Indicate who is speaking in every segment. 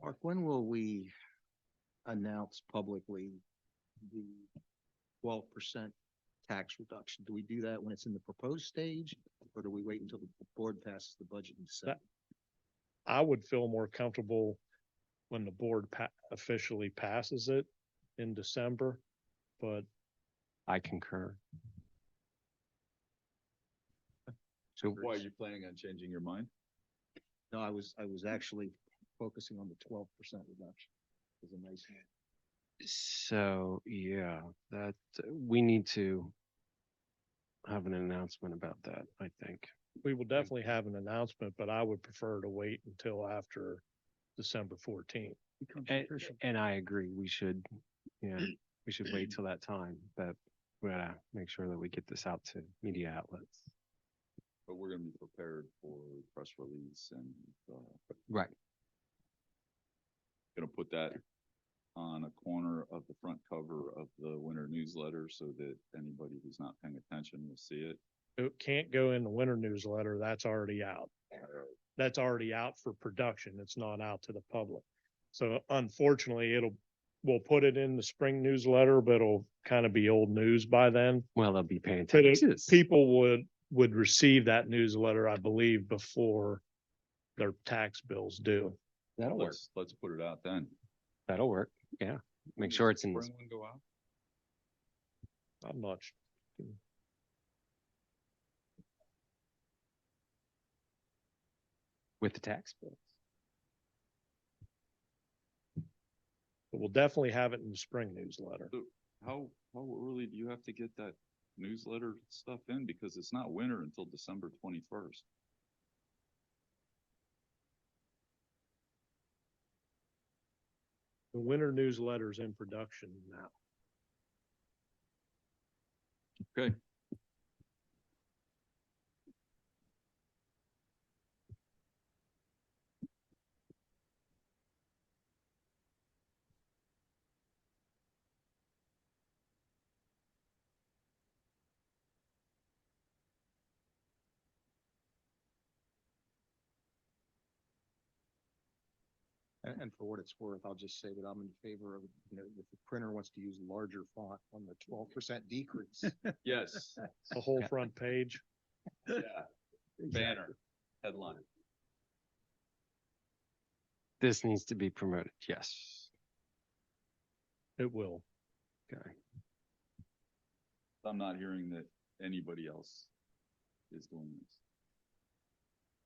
Speaker 1: Mark, when will we announce publicly the twelve percent tax reduction? Do we do that when it's in the proposed stage, or do we wait until the board passes the budget in December?
Speaker 2: I would feel more comfortable when the board pa- officially passes it in December. But
Speaker 3: I concur. So
Speaker 4: Why, are you planning on changing your mind?
Speaker 1: No, I was, I was actually focusing on the twelve percent reduction. Is a nice,
Speaker 3: So, yeah, that, we need to have an announcement about that, I think.
Speaker 2: we will definitely have an announcement, but I would prefer to wait until after December fourteenth.
Speaker 1: becomes
Speaker 3: And,
Speaker 1: official.
Speaker 3: and I agree, we should, yeah, we should wait till that time, but we gotta make sure that we get this out to media outlets.
Speaker 4: But we're gonna be prepared for press release and, uh,
Speaker 3: Right.
Speaker 4: gonna put that on a corner of the front cover of the winter newsletter so that anybody who's not paying attention will see it.
Speaker 2: It can't go in the winter newsletter. That's already out. That's already out for production. It's not out to the public. So unfortunately, it'll, we'll put it in the spring newsletter, but it'll kind of be old news by then.
Speaker 3: Well, they'll be paying
Speaker 2: But it-
Speaker 3: taxes.
Speaker 2: people would, would receive that newsletter, I believe, before their tax bills due.
Speaker 3: That'll work.
Speaker 4: Let's, let's put it out then.
Speaker 3: That'll work. Yeah. Make sure it's in, the-
Speaker 4: Spring one go out?
Speaker 2: I'm not, su-
Speaker 3: with the tax bills.
Speaker 2: but we'll definitely have it in the spring newsletter.
Speaker 4: How, how early do you have to get that newsletter stuff in? Because it's not winter until December twenty-first.
Speaker 2: The winter newsletter's in production now.
Speaker 4: Okay.
Speaker 1: And, and for what it's worth, I'll just say that I'm in favor of, you know, if the printer wants to use larger font on the twelve percent decrease.
Speaker 4: Yes.
Speaker 2: The whole
Speaker 3: Yeah.
Speaker 2: front page.
Speaker 4: Yeah. Banner, headline.
Speaker 3: This needs to be promoted. Yes.
Speaker 2: It will.
Speaker 3: Okay.
Speaker 4: I'm not hearing that anybody else is doing this.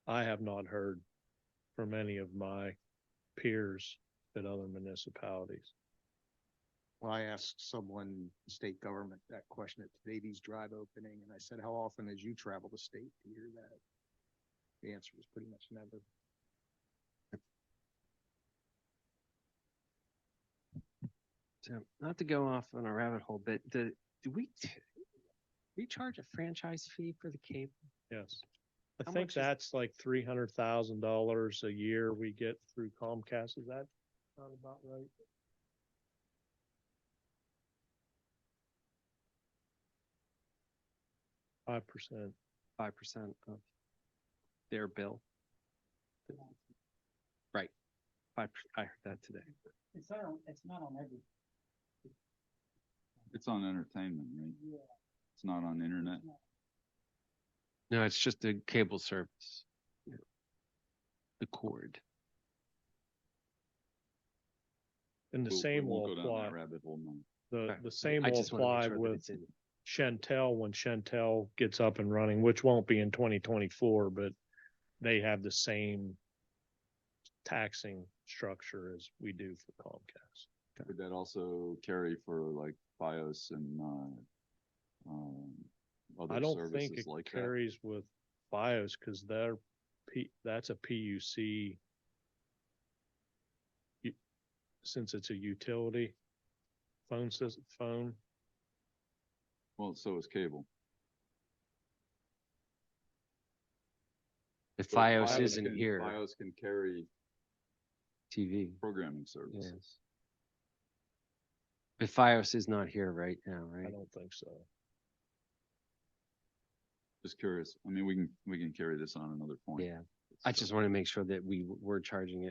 Speaker 2: I have not heard from any of my peers at other municipalities.
Speaker 1: Well, I asked someone, in state government, that question at Davies Drive opening, and I said, how often as you travel the state to hear that? The answer was pretty much never.
Speaker 3: So not to go off on a rabbit hole, but the, do we, t- we charge a franchise fee for the cable?
Speaker 2: Yes. I
Speaker 3: How
Speaker 2: think
Speaker 3: much is-
Speaker 2: that's like three hundred thousand dollars a year we get through Comcast. Is that not about right? Five percent.
Speaker 3: Five percent of their bill? Right. Five, per- I heard that today.
Speaker 5: It's not on, it's not on every,
Speaker 4: It's on entertainment, right?
Speaker 5: yeah,
Speaker 4: It's not on internet.
Speaker 3: No, it's just the cable service. Yeah. The cord.
Speaker 2: And the
Speaker 4: We'll- we
Speaker 2: same will
Speaker 4: won't go down that
Speaker 2: apply,
Speaker 4: Rabbit hole now.
Speaker 2: the,
Speaker 3: Okay.
Speaker 2: the same
Speaker 3: I
Speaker 2: will
Speaker 3: just wanna make
Speaker 2: apply
Speaker 3: sure that
Speaker 2: with
Speaker 3: it's in-
Speaker 2: Chantel when Chantel gets up and running, which won't be in twenty twenty-four, but they have the same taxing structure as we do for Comcast.
Speaker 4: Would that also carry for like BIOS and, uh, um,
Speaker 2: I
Speaker 4: other
Speaker 2: don't think
Speaker 4: services
Speaker 2: it
Speaker 4: like that?
Speaker 2: carries with BIOS because they're, P- that's a PUC. u- Since it's a utility phone system, phone,
Speaker 4: Well, so is cable.
Speaker 3: If
Speaker 4: So
Speaker 3: FiOS isn't
Speaker 4: can-
Speaker 3: here,
Speaker 4: BIOS can carry
Speaker 3: TV,
Speaker 4: programming
Speaker 3: yes.
Speaker 4: services.
Speaker 3: If FiOS is not here right now,
Speaker 2: I
Speaker 3: right?
Speaker 2: don't think so.
Speaker 4: Just curious. I mean, we can, we can carry this on another point.
Speaker 3: Yeah, I just want to make sure that we w- were charging it.